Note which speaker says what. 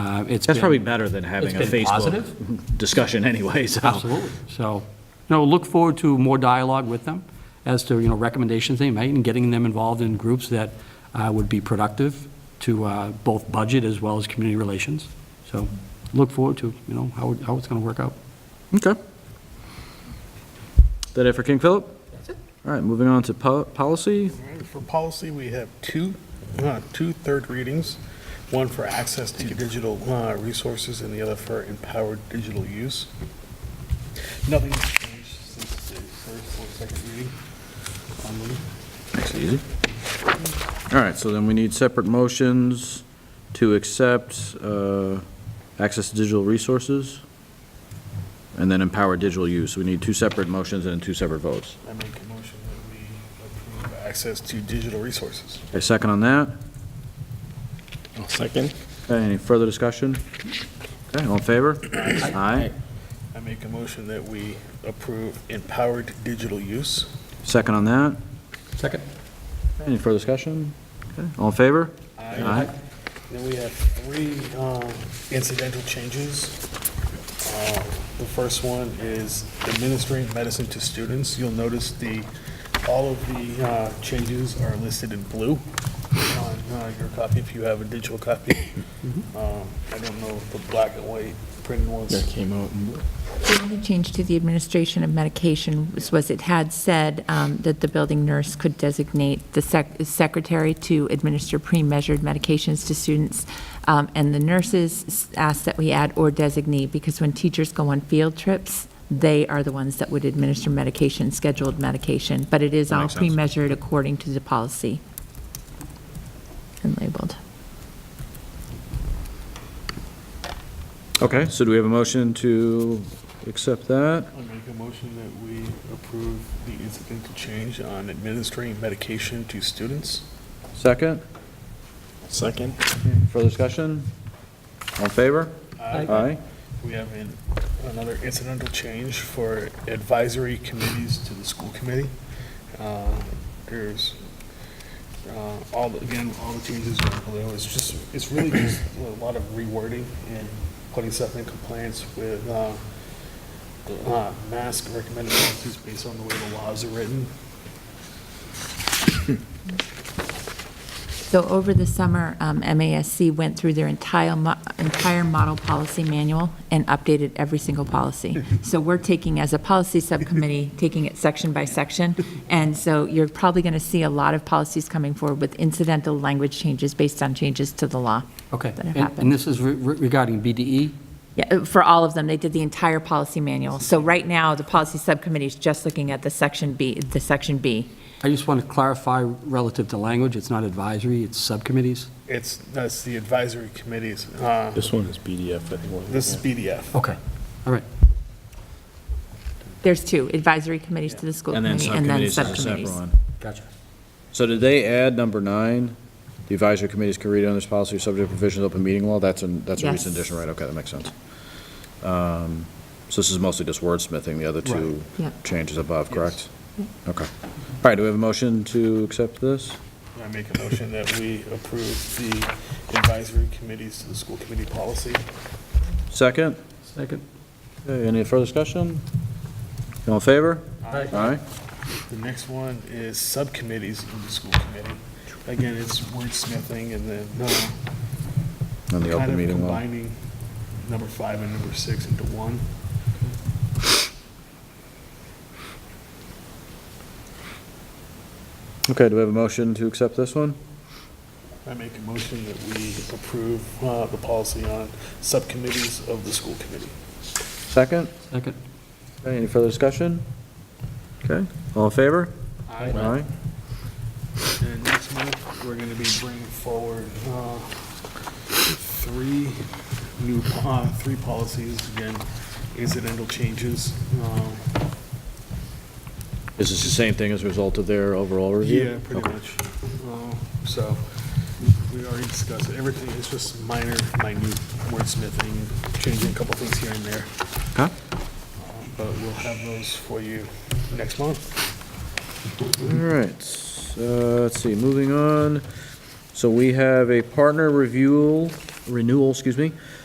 Speaker 1: uh, it's been.
Speaker 2: That's probably better than having a
Speaker 1: it's been
Speaker 2: Facebook discussion anyway, so.
Speaker 1: Absolutely. So, no, look forward to more dialogue with them as to, you know, recommendations they make and getting them involved in groups that uh, would be productive to uh, both budget as well as community relations. So look forward to, you know, how, it- how it's going to work out.
Speaker 3: Okay. That it for King Philip? All right, moving on to po- policy.
Speaker 4: For policy, we have two, uh, two third readings, one for access to digital uh, resources and the other for empowered digital use. Nothing has changed since the first or second reading. Um, on them.
Speaker 3: That's easy. All right, so then we need separate motions to accept uh, access to digital resources and then empower digital use. We need two separate motions and two separate votes.
Speaker 4: I make a motion that we approve access to digital resources.
Speaker 3: A second on that?
Speaker 5: Second?
Speaker 3: Okay, any further discussion? Okay, all in favor? Aye.
Speaker 4: I make a motion that we approve empowered digital use.
Speaker 3: Second on that?
Speaker 1: Second.
Speaker 3: Any further discussion? Okay, all in favor? Aye.
Speaker 4: Then we have three um, incidental changes. Um, The first one is administering medicine to students. You'll notice the, all of the uh, changes are listed in blue on uh, your copy, if you have a digital copy. Um, I don't know if the black and white printed
Speaker 5: Mm-hmm. That
Speaker 4: ones.
Speaker 5: came out.
Speaker 6: The only change to the administration of medication was- was it had said um, that the building nurse could designate the sec- secretary to administer pre-measured medications to students, Um, and the nurses s- asked that we add or designate, because when teachers go on field trips, they are the ones that would administer medication, scheduled medication, but it is
Speaker 3: That
Speaker 6: all
Speaker 3: makes sense.
Speaker 6: pre-measured according to the policy and labeled.
Speaker 3: Okay, so do we have a motion to accept that?
Speaker 4: I make a motion that we approve the incidental change on administering medication to students.
Speaker 3: Second?
Speaker 5: Second?
Speaker 3: Further discussion? All in favor? Aye.
Speaker 4: We have an- another incidental change for advisory committees to the school committee. Uh, There's, uh, all, the- again, all the changes are below. It's just, it's really just a lot of rewording and putting stuff in compliance with uh, the uh, mask recommended policies based on the way the laws are written.
Speaker 6: So over the summer, um, MASC went through their entire, mo- entire model policy manual and updated every single policy. So we're taking, as a policy subcommittee, taking it section by section. And so you're probably going to see a lot of policies coming forward with incidental language changes based on changes to the law.
Speaker 1: Okay.
Speaker 6: That
Speaker 1: And- And
Speaker 6: happened.
Speaker 1: this is re- re- regarding E. BDE?
Speaker 6: Yeah, uh, for all of them, they did the entire policy manual. So right now, the policy subcommittee is just looking at the section B, the section B.
Speaker 1: I just want to clarify relative to language, it's not advisory, it's subcommittees?
Speaker 4: It's, that's the advisory committees. Uh,
Speaker 5: This one is BDF, I think. wasn't it?
Speaker 4: This is
Speaker 5: Yeah.
Speaker 4: BDF.
Speaker 1: Okay. All right.
Speaker 6: There's two, advisory committees to the school
Speaker 3: And then
Speaker 6: committee and then
Speaker 3: subcommittees is a separate
Speaker 6: subcommittees.
Speaker 3: one.
Speaker 1: Gotcha.
Speaker 3: So did they add number nine? The advisory committees can read on this policy subject to provisions of open meeting law? That's an, that's a
Speaker 6: Yes.
Speaker 3: recent addition, right? Okay, that makes sense. Um, So this is mostly just wordsmithing, the other two
Speaker 6: Yeah.
Speaker 3: changes above, correct? Okay. All right, do we have a motion to accept this?
Speaker 4: I make a motion that we approve the advisory committees to the school committee policy.
Speaker 3: Second?
Speaker 1: Second.
Speaker 3: Okay, Any further discussion? All in favor?
Speaker 4: Aye.
Speaker 3: Aye.
Speaker 4: The next one is subcommittees of the school committee. Again, it's wordsmithing and then, no,
Speaker 3: On the
Speaker 4: kind
Speaker 3: open
Speaker 4: of
Speaker 3: meeting law.
Speaker 4: combining number five and number six into one.
Speaker 3: Okay, do we have a motion to accept this one?
Speaker 4: I make a motion that we approve uh, the policy on subcommittees of the school committee.
Speaker 3: Second?
Speaker 1: Second.
Speaker 3: Okay, Any further discussion? Okay, all in favor?
Speaker 4: Aye. And next month, we're gonna be bringing forward, uh, three new, uh, three policies, again, incidental changes. uh,
Speaker 3: Is this the same thing as a result of their overall review?
Speaker 4: Yeah, pretty much. Uh, So, we already discussed it. everything, it's just minor, minute wordsmithing, changing a couple things here and there, Um,
Speaker 3: Okay.
Speaker 4: but we'll have those for you next month.
Speaker 3: All right, uh, let's see, moving on. So we have a partner review, renewal, excuse me,